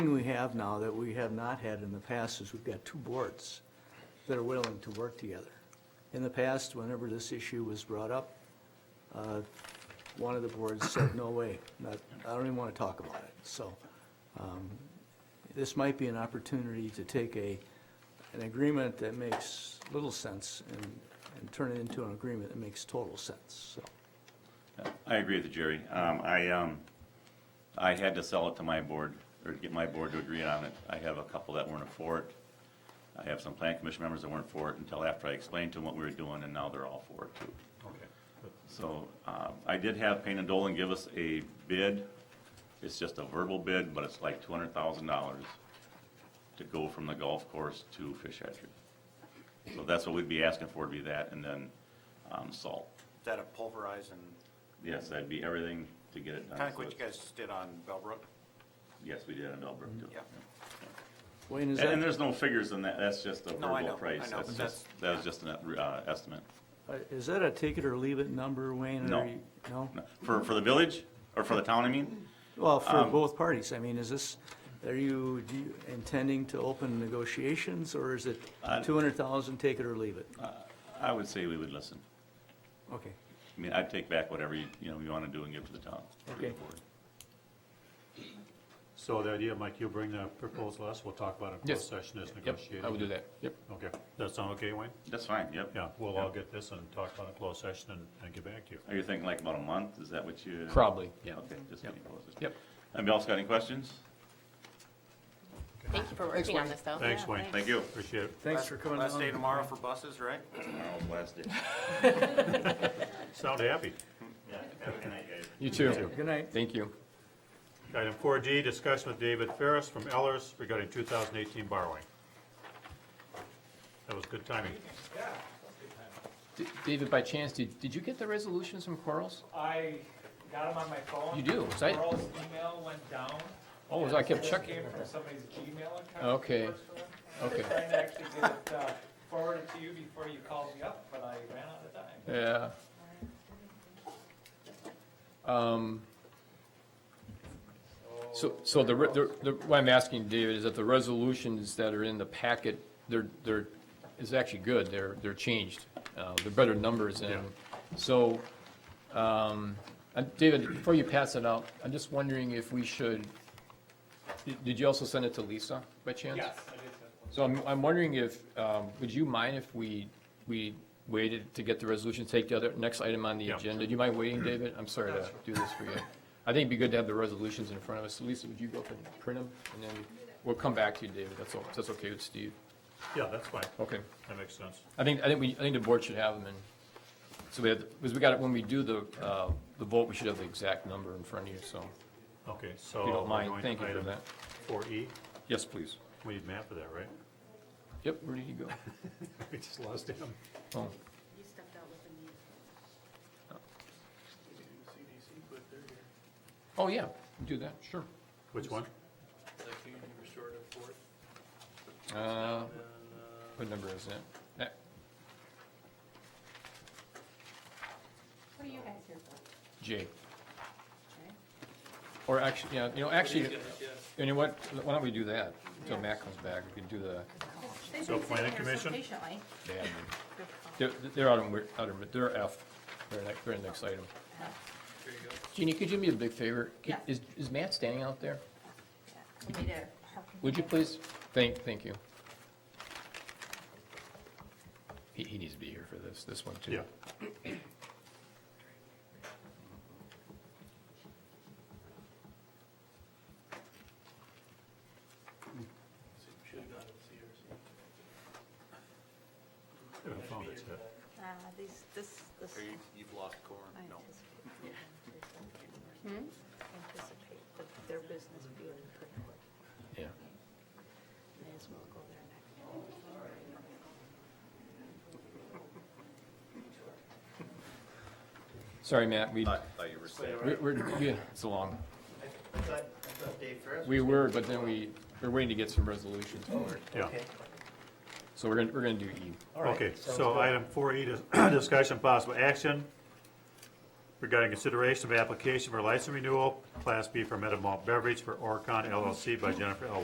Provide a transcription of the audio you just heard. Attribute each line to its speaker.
Speaker 1: thing we have now that we have not had in the past is we've got two boards that are willing to work together. In the past, whenever this issue was brought up, uh, one of the boards said, no way, not, I don't even want to talk about it. So um, this might be an opportunity to take a, an agreement that makes little sense and, and turn it into an agreement that makes total sense, so.
Speaker 2: I agree with you, Jerry. Um, I, um, I had to sell it to my board, or get my board to agree on it. I have a couple that weren't for it. I have some plan commission members that weren't for it until after I explained to them what we were doing, and now they're all for it too.
Speaker 3: Okay. But
Speaker 2: So, uh, I did have Payne and Dolan give us a bid. It's just a verbal bid, but it's like two hundred thousand dollars to go from the golf course to fish hatchery. So that's what we'd be asking for, would be that, and then, um, salt.
Speaker 4: that a pulverized and
Speaker 2: Yes, that'd be everything to get it done.
Speaker 4: kind of
Speaker 2: So
Speaker 4: what you
Speaker 2: it's-
Speaker 4: guys did on Bellbrook?
Speaker 2: Yes, we did in Elbrook too.
Speaker 4: Yeah.
Speaker 1: Wayne, is
Speaker 2: And- And
Speaker 1: that,
Speaker 2: there's no figures in that, that's just a
Speaker 4: No, I
Speaker 2: verbal
Speaker 4: know,
Speaker 2: price.
Speaker 4: I know,
Speaker 2: That's
Speaker 4: but
Speaker 2: just, that was just an uh, estimate.
Speaker 1: uh, is that a take it or leave it number, Wayne? or
Speaker 2: No.
Speaker 1: you- No?
Speaker 2: No, For, for the village, or for the town, I mean?
Speaker 1: Well, for both parties, I mean, is this, are you do you intending to open negotiations, or is it
Speaker 2: I-
Speaker 1: 200,000, take it or leave it?
Speaker 2: I would say we would listen.
Speaker 1: Okay,
Speaker 2: I mean, I'd take back whatever, you you know, you want to do and give to the town. to the
Speaker 1: Okay.
Speaker 2: board.
Speaker 3: So the idea, Mike, you'll bring the proposal to us, we'll talk about it in closed
Speaker 5: Yes.
Speaker 3: session as
Speaker 5: Yep,
Speaker 3: negotiated.
Speaker 5: I would do that, yep.
Speaker 3: Okay, that sound okay, Wayne?
Speaker 2: That's fine, yep.
Speaker 3: Yeah, we'll all get this and talk about it in closed session and, and get back to you.
Speaker 2: Are you thinking like about a month? Is that what you?
Speaker 5: Probably, yeah.
Speaker 2: Okay, just getting closer.
Speaker 5: Yep.
Speaker 2: Anybody else got any questions?
Speaker 6: Thank you for working on this, though.
Speaker 3: Thanks, Wayne.
Speaker 2: Thank you.
Speaker 3: Appreciate it.
Speaker 1: thanks for coming
Speaker 4: Last day
Speaker 1: down.
Speaker 4: tomorrow for buses, right?
Speaker 2: Tomorrow's last day.
Speaker 3: Sound happy.
Speaker 2: Yeah, have a good night, guys.
Speaker 5: You too.
Speaker 1: Good night.
Speaker 5: Thank you.
Speaker 3: Item four D, discussion with David Ferris from Ellers regarding two thousand eighteen borrowing. That was good timing.
Speaker 5: D- David, by chance, did, did you get the resolutions from Quarles?
Speaker 7: I got them on my phone.
Speaker 5: You do, 'cause I-
Speaker 7: Earl's email went down.
Speaker 5: Oh, so I kept
Speaker 7: This
Speaker 5: checking.
Speaker 7: Came from somebody's Gmail account.
Speaker 5: Okay, okay.
Speaker 7: I'm trying to actually get it uh, forwarded to you before you called me up, but I ran out of time.
Speaker 5: Yeah. Um, So, so the, re- the- the, what I'm asking, David, is that the resolutions that are in the packet, they're, they're, is actually good, they're, they're changed. Uh, They're better numbers and, so, um, uh, David, before you pass it out, I'm just wondering if we should, did- did you also send it to Lisa by chance?
Speaker 7: Yes, I did send one.
Speaker 5: So I'm, I'm wondering if, um, would you mind if we, we waited to get the resolution, take the other, next item on the
Speaker 3: Yeah.
Speaker 5: agenda? Do you mind waiting, David? I'm sorry to do this for you. I think it'd be good to have the resolutions in front of us. Lisa, would you go up and print them? And then we'll come back to you, David. That's all, that's okay with Steve?
Speaker 3: Yeah, that's fine.
Speaker 5: Okay.
Speaker 3: That makes sense.
Speaker 5: I think, I think we, I think the board should have them and, so we have, because we got it, when we do the, uh, the vote, we should have the exact number in front of you, so.
Speaker 3: Okay, so.
Speaker 5: If you
Speaker 3: we're
Speaker 5: don't mind,
Speaker 3: going to
Speaker 5: thank you for
Speaker 3: Oh, item
Speaker 5: that.
Speaker 3: Four E,
Speaker 5: Yes, please.
Speaker 3: we need map of that, right?
Speaker 5: Yep, where did you go?
Speaker 3: We just lost him.
Speaker 5: Oh,
Speaker 6: You stepped out with the
Speaker 5: oh, yeah, do that, sure.
Speaker 3: Which one?
Speaker 8: The community restorative board,
Speaker 5: Uh,
Speaker 8: and, uh,
Speaker 5: What number is it? That- Uh,
Speaker 6: What are you guys here for?
Speaker 5: J. Or actually, yeah, you know, actually, you know what, why don't we do that until Matt comes back, we can do the,
Speaker 6: They've
Speaker 3: So
Speaker 6: been sitting
Speaker 3: planning
Speaker 6: here so
Speaker 3: commission?
Speaker 6: Patiently.
Speaker 5: the admin. They're, they're out on, out on, they're F, they're next, they're next item.
Speaker 8: there you go.
Speaker 5: Jeannie, could you do me a big favor? Could-
Speaker 6: Yeah.
Speaker 5: Is, is Matt standing out there?
Speaker 6: We need to-
Speaker 5: Would you please? Thank, thank you. He, he needs to be here for this, this one too.
Speaker 3: Yeah.
Speaker 8: See, we Should've gone to CRC.
Speaker 3: Haven't found it yet.
Speaker 6: Uh, these, this, this.
Speaker 4: Or you- you've lost corn?
Speaker 6: I
Speaker 4: No.
Speaker 6: anticipate them to Anticipate that their business being pretty quick.
Speaker 5: Yeah.
Speaker 6: May as well go there next.
Speaker 5: Sorry, Matt,
Speaker 2: Uh,
Speaker 5: we,
Speaker 9: Thought, thought you were saying.
Speaker 5: we're- we're, yeah, it's a long.
Speaker 9: I thought, I thought Dave Ferris.
Speaker 5: We were, but then we, we're waiting to get some resolutions for it.
Speaker 3: Yeah.
Speaker 5: So we're gonna, we're gonna do E.
Speaker 9: All right,
Speaker 3: Okay,
Speaker 9: sounds
Speaker 3: so
Speaker 9: good.
Speaker 3: item four E, discussion possible action regarding consideration of application for license renewal, Class B fermented malt beverage for Orcon LLC by Jennifer L.